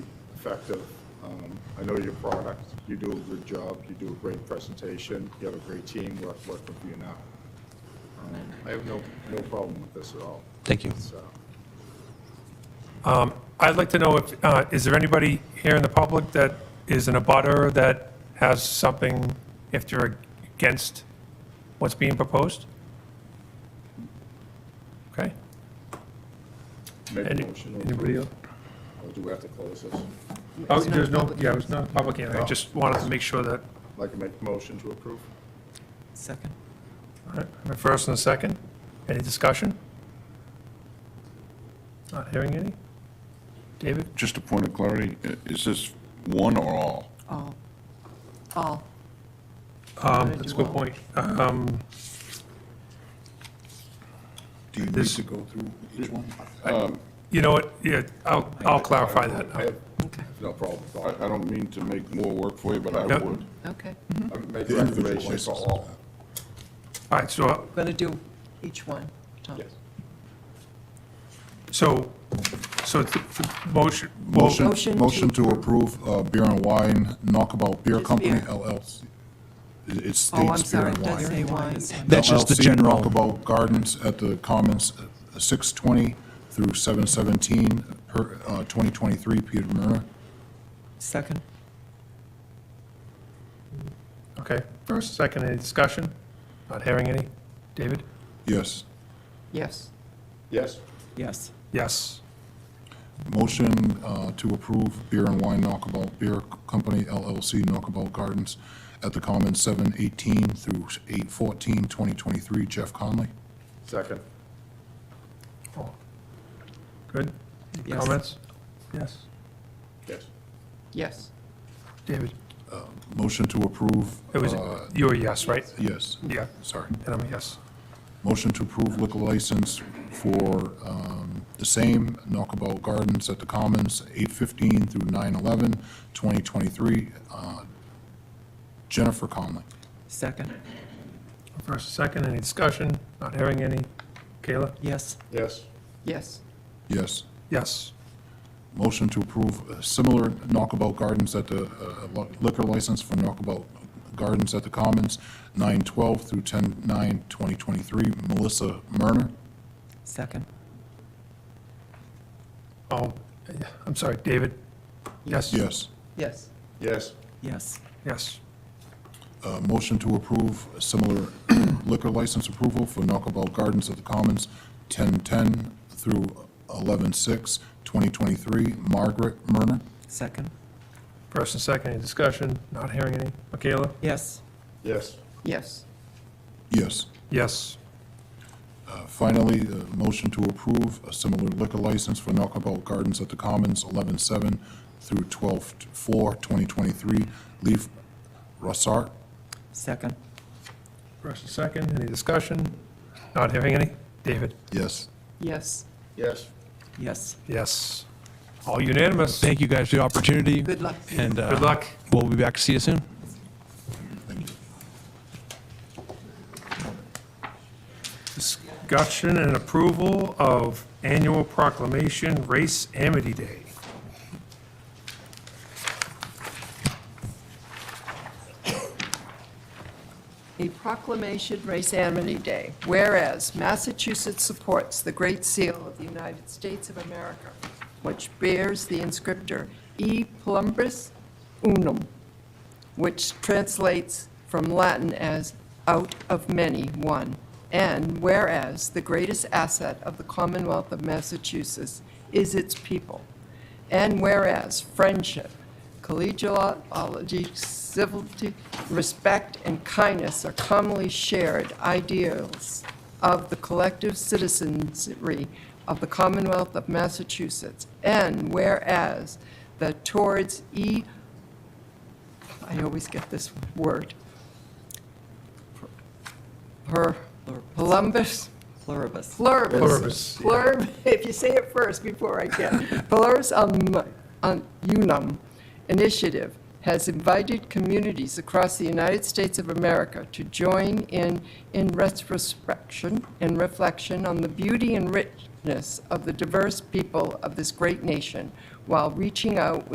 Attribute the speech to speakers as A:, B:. A: effective. Um, I know your product, you do a good job, you do a great presentation, you have a great team, we're working for you now. Um, I have no, no problem with this at all. uh,
B: Thank you.
A: So,
C: I'd like to know if, uh, is there anybody here in the public that is in a butter that has something, if they're against what's being proposed? Okay.
A: make a
C: Any-
A: motion. or-
C: Anybody else?
A: Or do we have to close this? I'd
C: Oh, there's no, yeah, it's not a public hearing. I just wanted to make sure that,
A: Like to make a motion to approve?
D: Second.
C: all right, my first and a second. Any discussion? Not hearing any? David?
E: Just a point of clarity, i- is this one or all?
D: All. All.
C: Um, That's a good point. Um,
E: Do you need
C: This-
E: to go through each one?
C: You know what, yeah, I'll, I'll clarify that.
A: I have
D: Okay.
A: no problem with
E: I,
A: all.
E: I don't mean to make more work for you, but I
C: Yep.
E: would.
D: Okay.
A: I'm making recommendations for all.
C: All right, so
D: Going to do each one, Tom.
A: Yes.
C: So, so the the motion, well,
F: Motion,
D: Motion to-
F: motion to approve uh, Beer and Wine Knockabout Beer
D: Just
F: Company
D: beer.
F: LLC. It it
D: Oh, I'm
F: states Beer
D: sorry,
F: and
D: it does
F: Wine.
D: say wine.
B: That's just the
F: LLC
B: general.
F: Knockabout Gardens at the Commons, uh, 620 through 717, per, uh, 2023, Peter Murray.
D: Second.
C: okay, first, second, any discussion? Not hearing any? David?
F: Yes.
D: Yes.
A: Yes,
D: Yes.
C: Yes.
F: Motion uh, to approve Beer and Wine Knockabout Beer Company LLC Knockabout Gardens at the Commons, 718 through 814, 2023, Jeff Conley.
A: second.
C: Good?
D: Yes.
C: Comments? Yes.
A: Yes.
D: Yes.
C: David?
F: Motion to approve.
C: It was,
F: uh,
C: you were yes, right?
F: Yes,
C: Yeah,
F: sorry.
C: and I'm a yes.
F: Motion to approve liquor license for um, the same Knockabout Gardens at the Commons, 8:15 through 9:11, 2023. Uh, Jennifer Conley.
D: Second.
C: First, second, any discussion? Not hearing any? Kayla?
D: Yes.
A: Yes,
D: Yes.
F: Yes.
C: Yes.
F: Motion to approve uh, similar Knockabout Gardens at the, uh, li- liquor license for Knockabout Gardens at the Commons, 9:12 through 10:09, Melissa Murner.
D: Second.
C: Oh, I'm sorry, David? Yes?
F: Yes.
D: Yes.
A: yes,
D: Yes.
C: Yes.
F: Uh, Motion to approve a similar liquor license approval for Knockabout Gardens at the Commons, 1010 through 11/6/2023. Margaret Murner?
D: Second.
C: First and second, any discussion? Not hearing any? Michaela?
D: Yes.
A: yes,
D: Yes.
F: Yes.
C: Yes.
F: Uh, Finally, uh, motion to approve a similar liquor license for Knockabout Gardens at the Commons, 11/7 through 12/4/2023. Leaf Rossart?
D: Second.
C: First and second, any discussion? Not hearing any? David?
F: Yes.
D: Yes.
A: yes.
D: Yes.
C: Yes. All unanimous.
B: Thank you guys for the opportunity.
D: Good luck.
B: And uh,
C: Good luck.
B: We'll be back to see you soon.
F: Thank you.
C: Discussion and approval of annual proclamation Race Amity Day.
D: A proclamation Race Amity Day. Whereas Massachusetts supports the Great Seal of the United States of America, which bears the inscriptor E plumbus unum, which translates from Latin as out of many, one. And whereas the greatest asset of the Commonwealth of Massachusetts is its people. And whereas friendship, collegiality, civility, respect, and kindness are commonly shared ideals of the collective citizenry of the Commonwealth of Massachusetts. And whereas the towards E I always get this word. Per, Columbus? Pluribus. Pluribus.
C: Pluribus, yeah.
D: Plurib, if you say it first before I get. Pluribus um, um, Unum Initiative has invited communities across the United States of America to join in, in retrospection and reflection on the beauty and richness of the diverse people of this great nation while reaching out